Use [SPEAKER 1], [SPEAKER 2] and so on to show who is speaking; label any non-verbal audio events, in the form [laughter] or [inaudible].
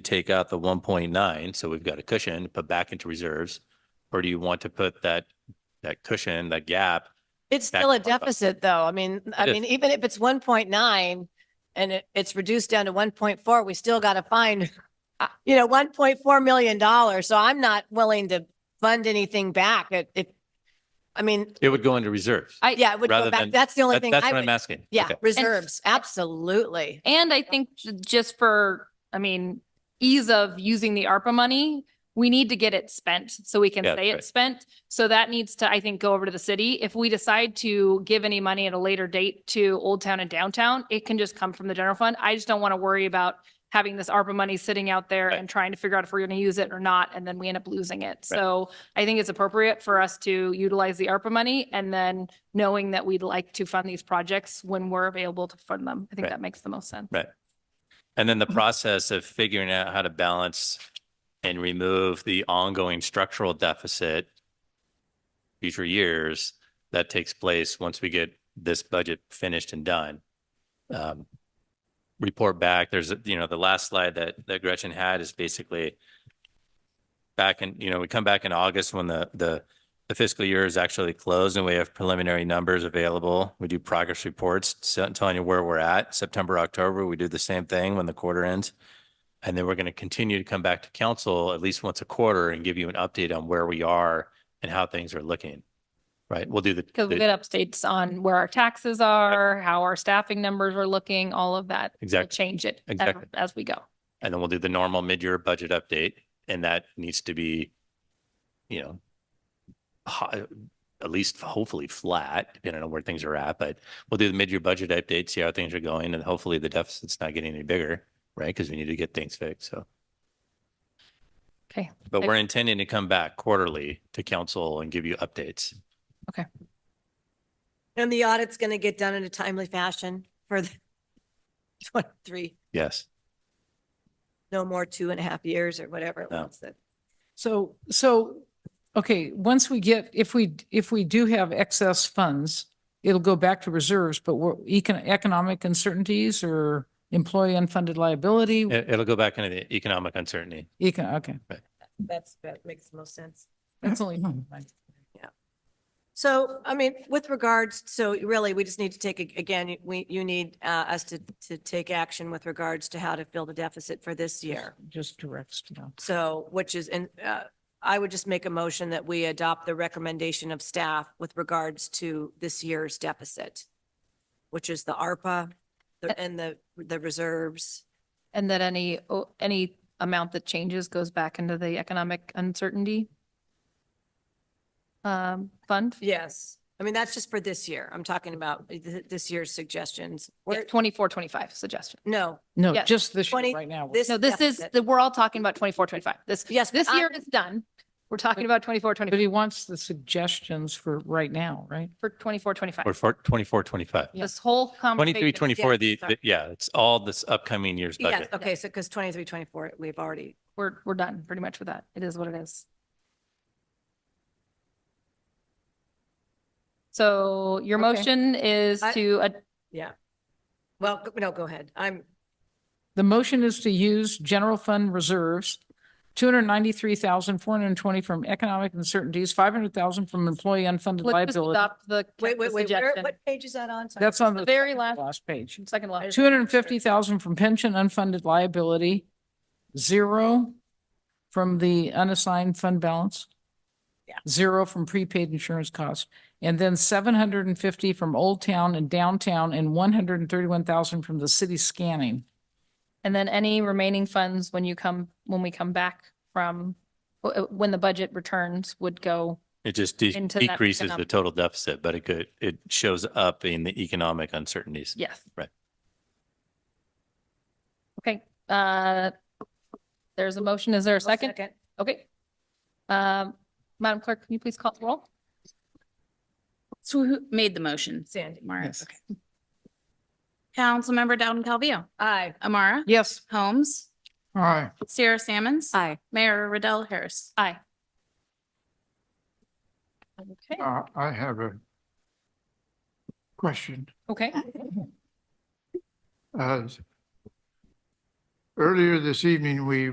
[SPEAKER 1] take out the one point nine, so we've got a cushion, put back into reserves? Or do you want to put that, that cushion, that gap?
[SPEAKER 2] It's
[SPEAKER 1] back
[SPEAKER 2] still a
[SPEAKER 1] up.
[SPEAKER 2] deficit though. I mean, I
[SPEAKER 1] It is.
[SPEAKER 2] mean, even if it's one point nine and it, it's reduced down to one point four, we still got to find, uh, you know, one point four million dollars. So I'm not willing to fund anything back. It, it, I mean,
[SPEAKER 1] It would go into reserves.
[SPEAKER 3] I-
[SPEAKER 2] yeah, it would
[SPEAKER 1] Rather
[SPEAKER 2] go
[SPEAKER 1] than-
[SPEAKER 2] back. That's the only
[SPEAKER 1] That-
[SPEAKER 2] thing
[SPEAKER 1] That's
[SPEAKER 2] I
[SPEAKER 1] what I'm
[SPEAKER 2] would,
[SPEAKER 1] asking.
[SPEAKER 2] yeah,
[SPEAKER 1] Okay.
[SPEAKER 2] reserves, absolutely.
[SPEAKER 3] And I think j- just for, I mean, ease of using the ARPA money, we need to get it spent so we can
[SPEAKER 1] Yeah,
[SPEAKER 3] say
[SPEAKER 1] right.
[SPEAKER 3] it's spent. So that needs to, I think, go over to the city. If we decide to give any money at a later date to Old Town and Downtown, it can just come from the general fund. I just don't want to worry about having this ARPA money sitting out there
[SPEAKER 1] Right.
[SPEAKER 3] and trying to figure out if we're going to use it or not, and then we end up losing it. So I think it's appropriate for us to utilize the ARPA money and then knowing that we'd like to fund these projects when we're available to fund them. I think
[SPEAKER 1] Right.
[SPEAKER 3] that makes the most sense.
[SPEAKER 1] Right. And then the
[SPEAKER 2] Mm-hmm.
[SPEAKER 1] process of figuring out how to balance and remove the ongoing structural deficit future years, that takes place once we get this budget finished and done. Um, Report back, there's, a- you know, the last slide that, that Gretchen had is basically back in, you know, we come back in August when the, the the fiscal year is actually closed and we have preliminary numbers available. We do progress reports, so- telling you where we're at. September, October, we do the same thing when the quarter ends. And then we're going to continue to come back to council at least once a quarter and give you an update on where we are and how things are looking. Right? We'll do the.
[SPEAKER 3] Because we
[SPEAKER 1] the-
[SPEAKER 3] get updates on where our taxes are, how our staffing numbers are looking, all of that. We'll
[SPEAKER 1] Exactly.
[SPEAKER 3] Change it ev-
[SPEAKER 1] Exactly.
[SPEAKER 3] as we go.
[SPEAKER 1] And then we'll do the normal mid-year budget update, and that needs to be, you know, ho- at least hopefully flat, depending on where things are at, but we'll do the mid-year budget update, see how things are going, and hopefully the deficit's not getting any bigger, right? Because we need to get things fixed, so.
[SPEAKER 3] Okay.
[SPEAKER 1] But we're intending to come back quarterly to council and give you updates.
[SPEAKER 2] And the audit's going to get done in a timely fashion for the [laughs] twenty-three,
[SPEAKER 1] Yes.
[SPEAKER 2] no more two and a half years or whatever. it
[SPEAKER 1] No.
[SPEAKER 2] was that-
[SPEAKER 4] So, so, okay, once we get, if we, if we do have excess funds, it'll go back to reserves, but we're econ- economic uncertainties or employee unfunded liability,
[SPEAKER 1] It, it'll go back into the economic uncertainty.
[SPEAKER 4] econ, okay.
[SPEAKER 2] That's, that makes the most sense.
[SPEAKER 4] That's only.
[SPEAKER 2] So, I mean, with regards, so really, we just need to take, a- again, we, you need uh, us to, to take action with regards to how to fill the deficit for this year.
[SPEAKER 4] Just directs, you know.
[SPEAKER 2] So, which is, and uh, I would just make a motion that we adopt the recommendation of staff with regards to this year's deficit, which is the ARPA the- and the, the reserves.
[SPEAKER 3] And that any, o- any amount that changes goes back into the economic uncertainty um, fund.
[SPEAKER 2] Yes. I mean, that's just for this year. I'm talking about uh, th- this year's suggestions. We're,
[SPEAKER 3] Twenty-four, twenty-five suggestion.
[SPEAKER 2] no,
[SPEAKER 4] No,
[SPEAKER 3] Yes.
[SPEAKER 4] just this year
[SPEAKER 2] 20
[SPEAKER 4] right now.
[SPEAKER 2] this. Um,
[SPEAKER 3] No, this is,
[SPEAKER 2] deficit.
[SPEAKER 3] the we're all talking about twenty-four, twenty-five. This,
[SPEAKER 2] Yes.
[SPEAKER 3] this
[SPEAKER 2] I-
[SPEAKER 3] year is done. We're talking about twenty-four,
[SPEAKER 4] But
[SPEAKER 3] twenty-five,
[SPEAKER 4] he wants the suggestions for right now, right?
[SPEAKER 3] for twenty-four, twenty-five.
[SPEAKER 1] We're for twenty-four, twenty-five.
[SPEAKER 4] Yeah.
[SPEAKER 3] This whole conversation.
[SPEAKER 1] Twenty-three, twenty-four, the,
[SPEAKER 3] Sorry.
[SPEAKER 1] the- yeah, it's all this upcoming year's
[SPEAKER 2] Yes,
[SPEAKER 1] budget.
[SPEAKER 2] okay, so because 23, 24, we've already,
[SPEAKER 3] We're, we're done pretty much with that. It is what it is. So your
[SPEAKER 4] Okay.
[SPEAKER 3] motion is
[SPEAKER 2] I-
[SPEAKER 3] to, ad-
[SPEAKER 2] well, go- no, go ahead. I'm,
[SPEAKER 4] The motion is to use general fund reserves, two hundred ninety-three thousand, four hundred and twenty from economic uncertainties, five hundred thousand from employee unfunded
[SPEAKER 3] let's just
[SPEAKER 4] liability.
[SPEAKER 3] adopt the
[SPEAKER 2] wait, wait, wait, where-
[SPEAKER 3] suggestion.
[SPEAKER 2] what page is that on? Sorry.
[SPEAKER 4] That's on the.
[SPEAKER 3] Very last,
[SPEAKER 4] Last page.
[SPEAKER 3] second last.
[SPEAKER 4] Two hundred and fifty thousand from pension unfunded liability, zero from the unassigned fund balance.
[SPEAKER 2] Yeah.
[SPEAKER 4] Zero from prepaid insurance costs, and then seven hundred and fifty from Old Town and Downtown, and one hundred and thirty-one thousand from the city scanning.
[SPEAKER 3] And then any remaining funds when you come, when we come back from, w- w- when the budget returns would go
[SPEAKER 1] It just de-
[SPEAKER 3] into that
[SPEAKER 1] decreases the
[SPEAKER 3] economic-
[SPEAKER 1] total deficit, but it could, it shows up in the economic uncertainties.
[SPEAKER 3] Yes.
[SPEAKER 1] Right.
[SPEAKER 3] Okay, uh, there's a motion. Is there a
[SPEAKER 2] I'll
[SPEAKER 3] second? Okay. Um, Madam Clerk, can you please call the roll?
[SPEAKER 5] So who made the motion?
[SPEAKER 2] Sandy.
[SPEAKER 5] Amara,
[SPEAKER 4] Yes.
[SPEAKER 5] okay. Councilmember Dowden Calvillo.
[SPEAKER 2] Aye.
[SPEAKER 5] Amara.
[SPEAKER 4] Yes.
[SPEAKER 5] Holmes.
[SPEAKER 4] All right.
[SPEAKER 5] Sarah Sammons.
[SPEAKER 2] Aye.
[SPEAKER 5] Mayor Riddell Harris.
[SPEAKER 3] Aye. Okay,
[SPEAKER 6] Uh, I have a question.
[SPEAKER 3] okay.
[SPEAKER 6] Uh, Earlier this evening, we